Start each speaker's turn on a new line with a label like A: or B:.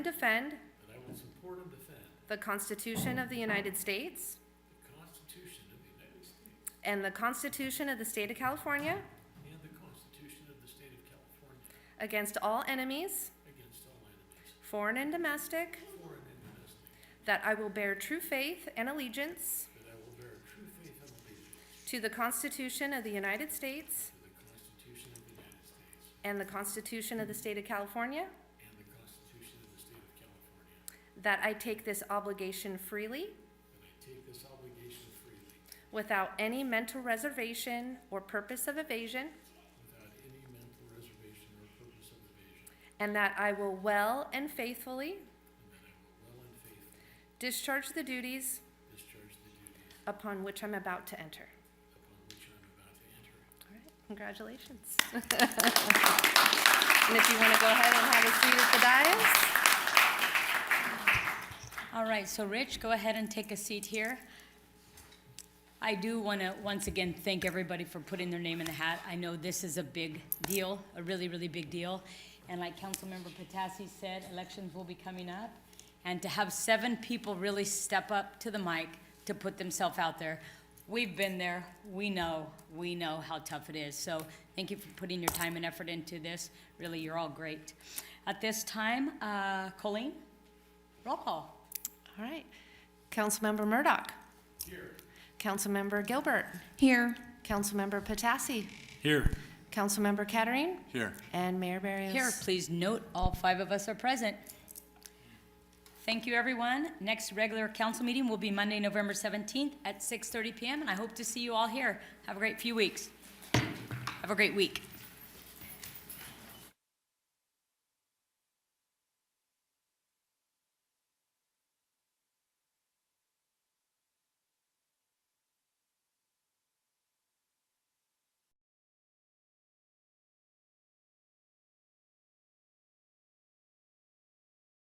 A: defend
B: that I will support and defend
A: the Constitution of the United States
B: the Constitution of the United States
A: and the Constitution of the State of California
B: and the Constitution of the State of California
A: against all enemies,
B: against all enemies,
A: foreign and domestic,
B: foreign and domestic,
A: that I will bear true faith and allegiance
B: that I will bear true faith and allegiance
A: to the Constitution of the United States
B: to the Constitution of the United States
A: and the Constitution of the State of California,
B: and the Constitution of the State of California,
A: that I take this obligation freely
B: that I take this obligation freely
A: without any mental reservation or purpose of evasion,
B: without any mental reservation or purpose of evasion,
A: and that I will well and faithfully
B: and that I will well and faithfully
A: discharge the duties
B: discharge the duties
A: upon which I'm about to enter.
B: upon which I am about to enter.
A: All right, congratulations. And if you want to go ahead and have a seat at
C: All right, so Rich, go ahead and take a seat here. I do want to, once again, thank everybody for putting their name in the hat. I know this is a big deal, a really, really big deal. And like Councilmember Patassi said, elections will be coming up. And to have seven people really step up to the mic to put themselves out there, we've been there, we know, we know how tough it is. So thank you for putting your time and effort into this. Really, you're all great. At this time, uh, Colleen, roll call.
A: the dais. All right. Councilmember Murdoch. Here. Councilmember Gilbert.
D: Here.
A: Councilmember Patassi.
B: Here.
A: Councilmember Kettering.
B: Here.
A: And Mayor Barrios.
C: Here, please note, all five of us are present. Thank you, everyone. Next regular council meeting will be Monday, November 17th at 6:30 PM, and I hope to see you all here. Have a great few weeks. Have a great week.